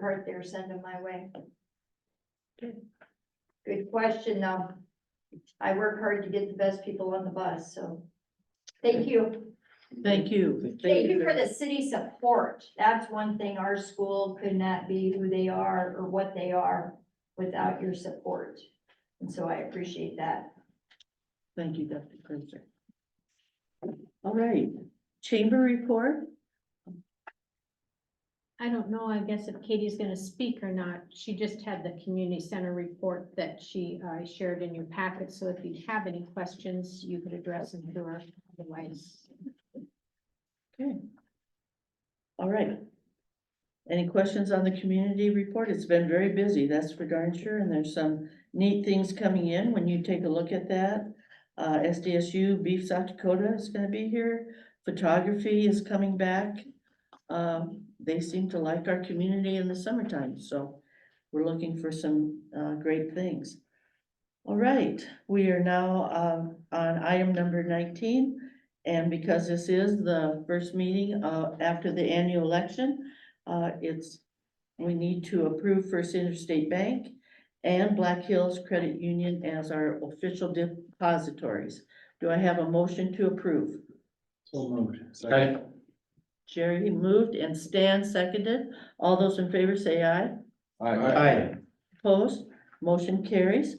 hurt there, send them my way. Good question, though. I work hard to get the best people on the bus, so. Thank you. Thank you. Thank you for the city support. That's one thing. Our school could not be who they are or what they are without your support. And so I appreciate that. Thank you, Dr. Cruiser. All right, chamber report? I don't know, I guess if Katie's gonna speak or not, she just had the community center report that she uh, shared in your packet, so if you have any questions, you could address them to her, otherwise. Okay. All right. Any questions on the community report? It's been very busy, that's for darn sure, and there's some neat things coming in when you take a look at that. Uh, SDSU Beef South Dakota is gonna be here, photography is coming back. Um, they seem to like our community in the summertime, so we're looking for some, uh, great things. All right, we are now, um, on item number nineteen, and because this is the first meeting, uh, after the annual election, uh, it's, we need to approve First Interstate Bank and Black Hills Credit Union as our official depositories. Do I have a motion to approve? So moved. Second. Jerry moved and Stan seconded. All those in favor say aye. Aye. Opposed? Motion carries.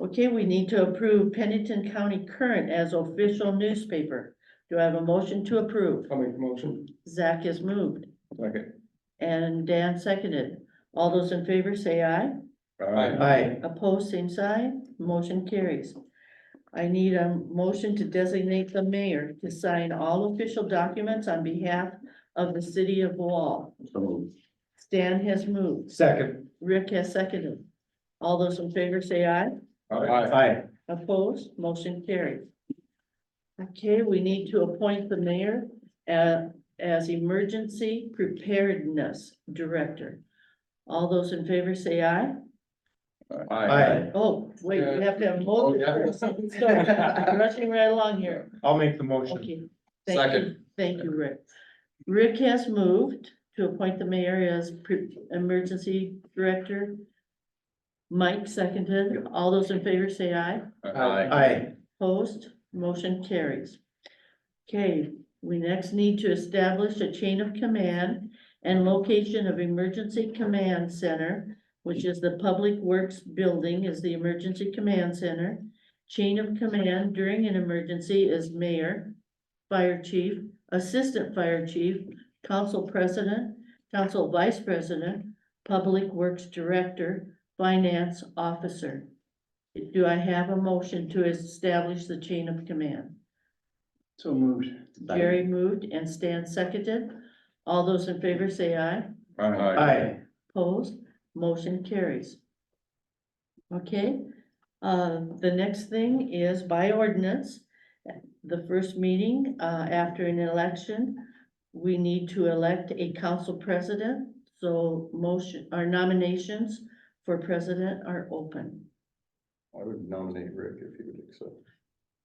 Okay, we need to approve Pennington County Current as official newspaper. Do I have a motion to approve? I'll make the motion. Zach has moved Second. and Dan seconded. All those in favor say aye. Aye. Opposed, same sign. Motion carries. I need a motion to designate the mayor to sign all official documents on behalf of the city of Wall. Stan has moved. Second. Rick has seconded. All those in favor say aye. Aye. Opposed, motion carried. Okay, we need to appoint the mayor uh, as emergency preparedness director. All those in favor say aye. Aye. Oh, wait, we have to have a Oh, motion yeah. first. Sorry, Rushing right along here. I'll make the motion. Okay. Thank you. Thank you, Rick. Rick has moved to appoint the mayor as pre- emergency director. Mike seconded. All those in favor say aye. Aye. Opposed, motion carries. Okay, we next need to establish a chain of command and location of emergency command center, which is the Public Works Building is the emergency command center. Chain of command during an emergency is mayor, fire chief, assistant fire chief, council president, council vice president, public works director, finance officer. Do I have a motion to establish the chain of command? So moved. Jerry moved and Stan seconded. All those in favor say aye. Aye. Opposed, motion carries. Okay, uh, the next thing is by ordinance, the first meeting, uh, after an election, we need to elect a council president, so motion, our nominations for president are open. I would nominate Rick if he would accept.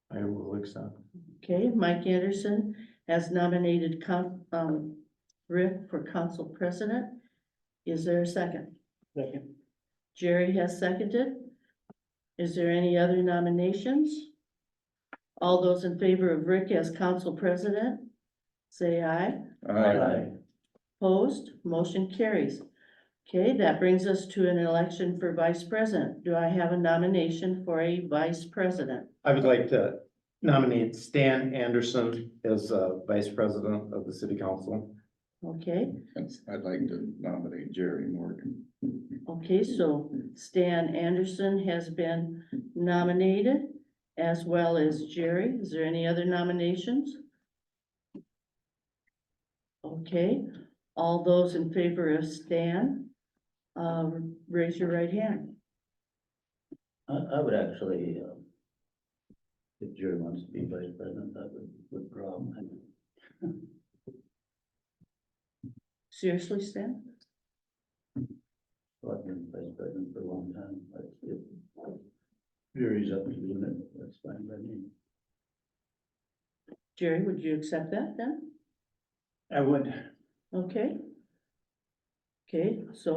I will accept. Okay, Mike Anderson has nominated coun- um, Rick for council president. Is there a second? Second. Jerry has seconded. Is there any other nominations? All those in favor of Rick as council president, say aye. Opposed, motion carries. Okay, that brings us to an election for vice president. Do I have a nomination for a vice president? I would like to nominate Stan Anderson as uh, Vice President of the City Council. Okay, I'd like to nominate Jerry Morgan. Okay, so Stan Anderson has been nominated as well as Jerry. Is there any other nominations? Okay, all those in favor of Stan, uh, raise your right hand. I, I would actually, um, if Jerry wants to be vice president, that would withdraw my, Seriously, Stan? so I've been vice president for a long time, but if Jerry's up to doing it, that's fine by me. Jerry, would you accept that then? I would. Okay. Okay, so